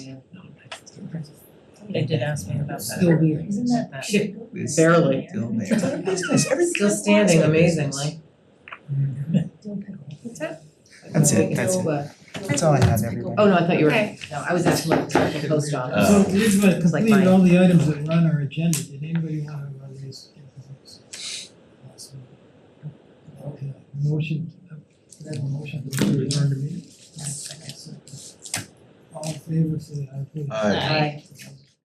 They did ask me about Still that. there. Isn't that That- shit? It's Barely. Still It's there. a business, everything. Still standing amazingly. That's it, that's it. That's all I had, everybody. Oh, no, I thought you were, no, I was asking like the post office. Uh, So we've uh, Because, like, completed mine- all the items that were on our agenda, did anybody wanna run these? Okay, motion, uh, can I have a motion to adjourn the meeting. All in favor, say aye, please. Aye. Aye. Aye.